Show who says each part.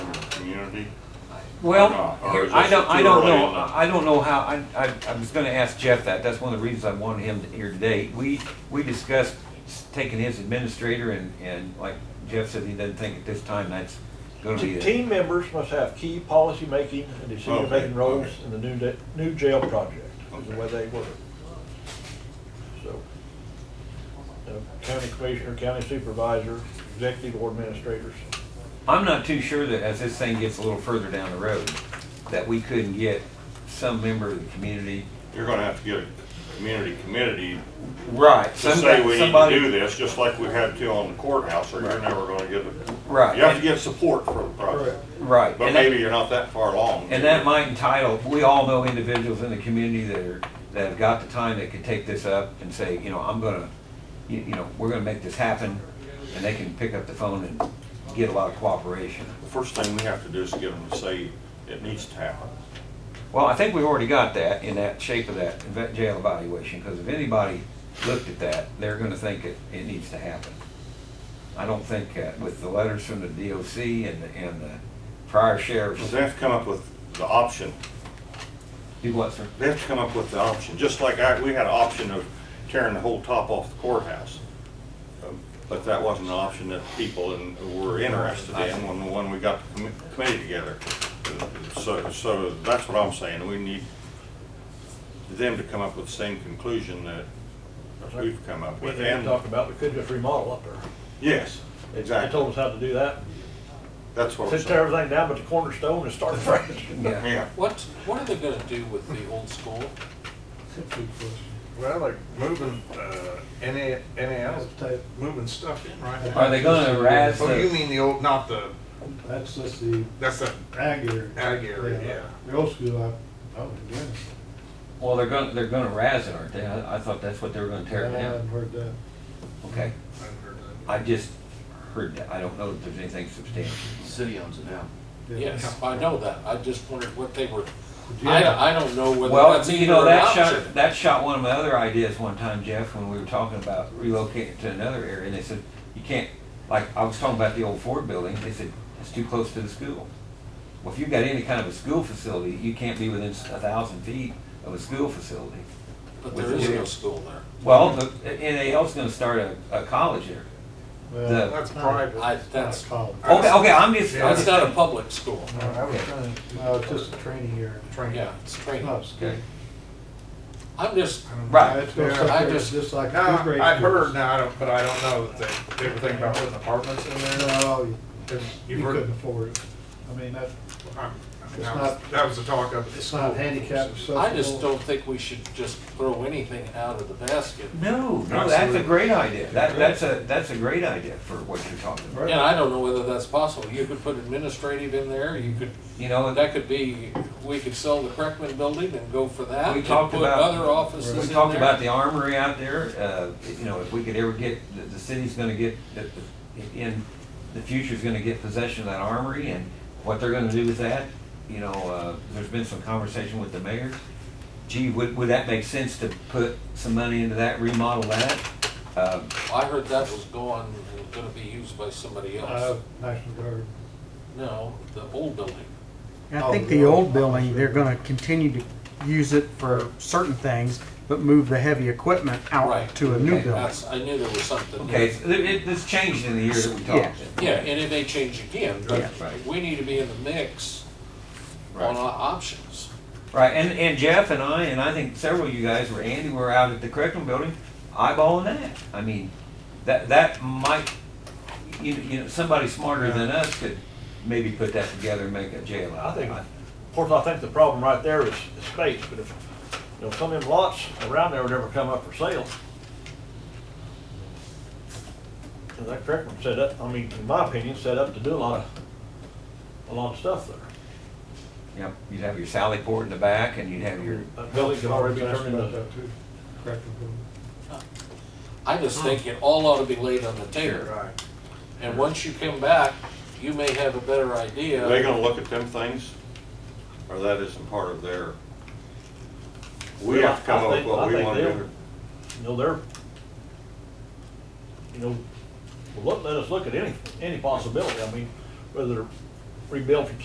Speaker 1: community?
Speaker 2: Well,
Speaker 1: Or not, or
Speaker 2: here-
Speaker 1: Uh, is
Speaker 2: I
Speaker 1: this
Speaker 2: don't, I
Speaker 1: too
Speaker 2: don't
Speaker 1: early
Speaker 2: know,
Speaker 1: in the-
Speaker 2: I I don't know how, I, I, I was gonna ask Jeff that, that's one of the reasons I wanted him here today. We, we discussed taking his administrator and, and like Jeff said, he doesn't think at this time that's gonna be.
Speaker 3: T-
Speaker 2: a-
Speaker 3: Team members must have key policy making and decision
Speaker 1: Okay,
Speaker 3: making roles
Speaker 1: okay.
Speaker 3: in the new, de- new jail project, is the
Speaker 1: Okay.
Speaker 3: way they work. So, the county commissioner, county supervisor, executive or administrators.
Speaker 2: I'm not too sure that as this thing gets a little further down the road, that we couldn't get some member of the community.
Speaker 1: You're gonna have to get a community committee
Speaker 2: Right.
Speaker 1: to say we need to do this, just like we had to on the courthouse, or you're
Speaker 2: Right.
Speaker 1: never gonna get it.
Speaker 2: Right.
Speaker 1: You have to get support for the project,
Speaker 3: Correct.
Speaker 2: Right.
Speaker 1: but
Speaker 2: and that-
Speaker 1: maybe you're not that far along.
Speaker 2: And that might entitle, we all know individuals in the community that are, that have got the time that could take this up and say, you know, I'm gonna, you, you know, we're gonna make this happen, and they can pick up the phone and get a lot of cooperation.
Speaker 1: The first thing we have to do is get them to say it needs to happen.
Speaker 2: Well, I think we've already got that in that shape of that vet- jail evaluation, because if anybody looked at that, they're gonna think it, it needs to happen. I don't think, uh, with the letters from the DOC and, the- and the prior sheriffs,
Speaker 1: Because they have to come up with the option
Speaker 2: do what, sir?
Speaker 1: They have to come up with the option, just like I, we had an option of tearing the whole top off the courthouse. Um, But that wasn't an option that people in- were interested in when, when we got the commi- committee together. So, so that's what I'm saying, we need them to come up with the same conclusion that we've come up
Speaker 3: We
Speaker 1: with.
Speaker 3: didn't
Speaker 1: And,
Speaker 3: talk about, we could just remodel up there.
Speaker 1: yes,
Speaker 3: They- They
Speaker 1: exactly,
Speaker 3: told us how to do that.
Speaker 1: that's what I'm
Speaker 3: Sit
Speaker 1: saying.
Speaker 3: everything down but the cornerstone and start fresh.
Speaker 2: Yeah,
Speaker 1: Yeah,
Speaker 4: What, what are they gonna do with the old school?
Speaker 5: Well, they're moving, uh, NA, NAL, moving stuff in, right?
Speaker 2: Are they gonna razz
Speaker 5: Oh, you
Speaker 2: the-
Speaker 5: mean the old, not the,
Speaker 6: That's just the
Speaker 5: that's the
Speaker 6: ag area.
Speaker 5: ag area, yeah.
Speaker 6: The old school, I, I wouldn't do it.
Speaker 2: Well, they're gonna, they're gonna razz it, aren't they? I, I thought that's what they were gonna tear it
Speaker 6: I
Speaker 2: down.
Speaker 6: haven't heard that.
Speaker 2: Okay,
Speaker 5: I haven't heard that.
Speaker 2: I just heard that. I don't know if there's anything substantial.
Speaker 7: City owns it now.
Speaker 4: Yes, I know that, I just wondered what they were, I,
Speaker 6: Yeah.
Speaker 4: I don't know whether
Speaker 2: Well,
Speaker 4: that's
Speaker 2: you
Speaker 4: even
Speaker 2: know,
Speaker 4: an
Speaker 2: that shot,
Speaker 4: option.
Speaker 2: that shot one of my other ideas one time, Jeff, when we were talking about relocating to another area, and they said, you can't, like, I was talking about the old Ford building, they said, it's too close to the school. Well, if you've got any kind of a school facility, you can't be within a thousand feet of a school facility.
Speaker 4: But there is no school there.
Speaker 2: Well, the NAL's gonna start a, a college there.
Speaker 6: Well,
Speaker 2: The-
Speaker 5: That's private.
Speaker 4: I,
Speaker 6: it's not
Speaker 4: that's,
Speaker 6: college.
Speaker 2: Okay, okay, I'm just, I'm
Speaker 4: that's
Speaker 2: just-
Speaker 4: not a public school.
Speaker 5: I was trying
Speaker 6: No, it's just a training area.
Speaker 5: train.
Speaker 4: Yeah, it's
Speaker 6: It's
Speaker 4: training.
Speaker 6: not a school.
Speaker 2: okay.
Speaker 4: I'm just,
Speaker 2: Right.
Speaker 6: It's gonna
Speaker 5: Yeah,
Speaker 6: sit
Speaker 4: I
Speaker 6: there
Speaker 4: just-
Speaker 6: Just like.
Speaker 5: No,
Speaker 6: two grade
Speaker 5: I've heard,
Speaker 6: schools.
Speaker 5: no, I don't, but I don't know that they, they were thinking about putting apartments in there.
Speaker 6: No, you-
Speaker 5: If
Speaker 6: you
Speaker 5: You've heard,
Speaker 6: couldn't afford it. I mean, that,
Speaker 5: I'm- I mean,
Speaker 6: It's
Speaker 5: that was,
Speaker 6: not-
Speaker 5: that was the talk of.
Speaker 6: it's not handicap accessible.
Speaker 4: I just don't think we should just throw anything out of the basket.
Speaker 2: No, no, that's a
Speaker 5: Absolutely.
Speaker 2: great idea. That, that's a, that's a great idea for what you're talking about.
Speaker 4: And I don't know whether that's possible, you could put administrative in there, you could,
Speaker 2: You know, and
Speaker 4: that could be, we could sell the Kreckman building and go for that.
Speaker 2: We
Speaker 4: and
Speaker 2: talked about-
Speaker 4: Put other offices in
Speaker 2: we
Speaker 4: there.
Speaker 2: talked about the armory out there, uh, you know, if we could ever get, the, the city's gonna get, the- the- in, the future's gonna get possession of that armory and what they're gonna do with that, you know, uh, there's been some conversation with the mayor. Gee, would, would that make sense to put some money into that, remodel that? Uh,
Speaker 4: I heard that was gone and gonna be used by somebody
Speaker 6: Uh,
Speaker 4: else.
Speaker 6: National Guard.
Speaker 4: No, the old building.
Speaker 8: I
Speaker 4: Oh,
Speaker 8: think the old building, they're gonna continue to use it for certain things, but move the heavy equipment
Speaker 4: Right.
Speaker 8: out to a new
Speaker 2: Okay.
Speaker 8: building.
Speaker 4: That's, I knew there was something.
Speaker 2: Okay, it's- it, it, it's changed in the year that we talked.
Speaker 4: Yeah, and it may change again,
Speaker 2: Yeah.
Speaker 4: but
Speaker 2: Right.
Speaker 4: we need to be in the mix on our options.
Speaker 2: Right, and, and Jeff and I, and I think several of you guys were, Andy, were out at the curriculum building eyeballing that. I mean, that, that might, you, you know, somebody smarter than us could maybe put that together and make a jail
Speaker 3: I
Speaker 2: out of
Speaker 3: think,
Speaker 2: it.
Speaker 3: of course, I think the problem right there is is space, but if, you know, some of them lots around there would never come up for sale. Is that correct? I'm Set up, I mean, in my opinion, set up to do a lot of, a lot of stuff there.
Speaker 2: Yep, you'd have your Sally Port in the back and you'd have your,
Speaker 3: That building could Uh, already be
Speaker 6: I was asked
Speaker 3: turned
Speaker 6: about
Speaker 3: into,
Speaker 6: that too. Correct.
Speaker 4: I just think it all ought to be laid on the table.
Speaker 5: Right.
Speaker 4: And once you come back, you may have a better
Speaker 3: uh,
Speaker 1: are they
Speaker 4: idea.
Speaker 1: gonna look at them things, or that isn't part of their? We
Speaker 3: Well,
Speaker 1: have to come
Speaker 3: I
Speaker 1: up with
Speaker 3: think-
Speaker 1: what
Speaker 3: I
Speaker 1: we
Speaker 3: think
Speaker 1: wanna
Speaker 3: they'll-
Speaker 1: do.
Speaker 3: you know, they're, you know, well, let, let us look at any, any possibility. I mean, whether rebuild from